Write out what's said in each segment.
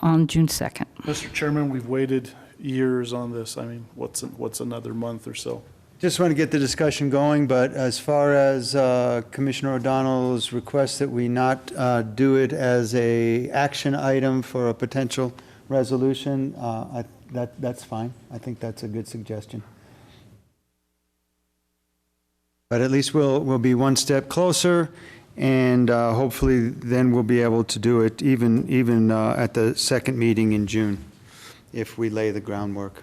on June 2nd. Mr. Chairman, we've waited years on this. I mean, what's, what's another month or so? Just want to get the discussion going, but as far as uh, Commissioner O'Donnell's request that we not uh, do it as a action item for a potential resolution, uh, I- that, that's fine. I think that's a good suggestion. But at least we'll, we'll be one step closer, and uh, hopefully then we'll be able to do it even, even uh, at the second meeting in June, if we lay the groundwork.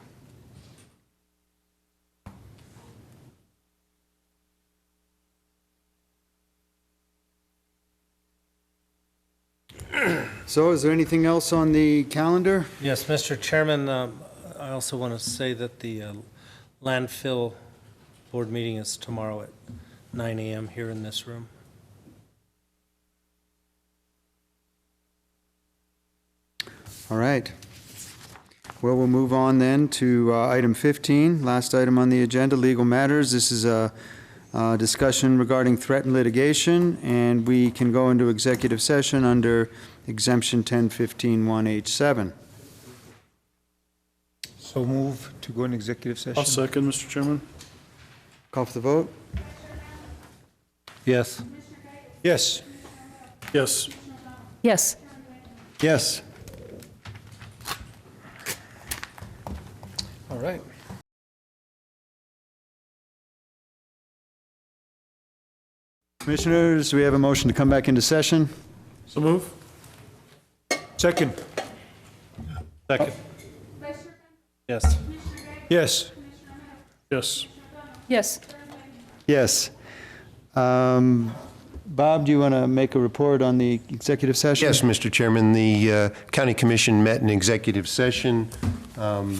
So is there anything else on the calendar? Yes, Mr. Chairman, um, I also want to say that the uh, landfill board meeting is tomorrow at 9 AM here in this room. All right. Well, we'll move on then to uh, item 15, last item on the agenda, legal matters. This is a uh, discussion regarding threat and litigation, and we can go into executive session under exemption 1015-1H7. So move to go in executive session. I'll second, Mr. Chairman. Call for the vote? Yes. Yes. Yes. Yes. Yes. All right. Commissioners, we have a motion to come back into session. So move? Second. Second. Yes. Yes. Yes. Yes. Yes. Um, Bob, do you want to make a report on the executive session? Yes, Mr. Chairman, the uh, County Commission met in executive session um,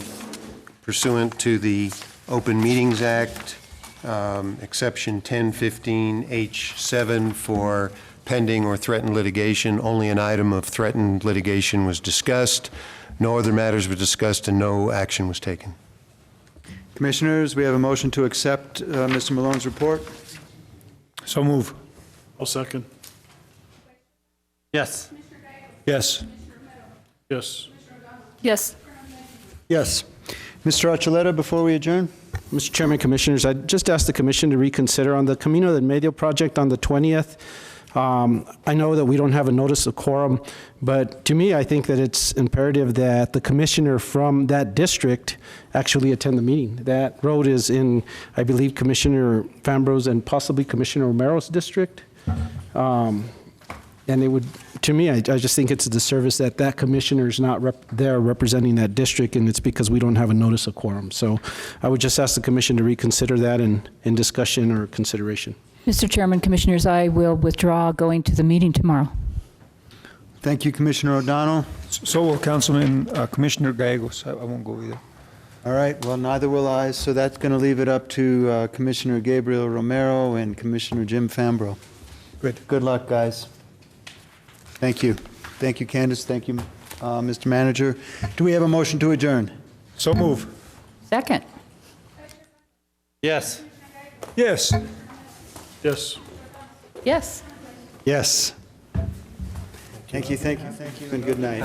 pursuant to the Open Meetings Act, um, exception 1015H7 for pending or threatened litigation. Only an item of threatened litigation was discussed. No other matters were discussed, and no action was taken. Commissioners, we have a motion to accept uh, Mr. Malone's report. So move. I'll second. Yes. Yes. Yes. Yes. Yes. Mr. Archuleta, before we adjourn? Mr. Chairman, Commissioners, I just asked the Commission to reconsider on the Camino del Medio project on the 20th. Um, I know that we don't have a notice of quorum, but to me, I think that it's imperative that the Commissioner from that district actually attend the meeting. That road is in, I believe, Commissioner Fambro's and possibly Commissioner Romero's district. And it would, to me, I, I just think it's a disservice that that commissioner is not rep, there representing that district, and it's because we don't have a notice of quorum. So I would just ask the commission to reconsider that in, in discussion or consideration. Mr. Chairman, Commissioners, I will withdraw going to the meeting tomorrow. Thank you, Commissioner O'Donnell. So will Councilman uh, Commissioner Gallegos. I I won't go either. All right, well, neither will I, so that's going to leave it up to uh, Commissioner Gabriel Romero and Commissioner Jim Fambro. Good. Good luck, guys. Thank you. Thank you, Candace. Thank you, uh, Mr. Manager. Do we have a motion to adjourn? So move. Second. Yes. Yes. Yes. Yes. Yes. Thank you, thank you, thank you, and good night.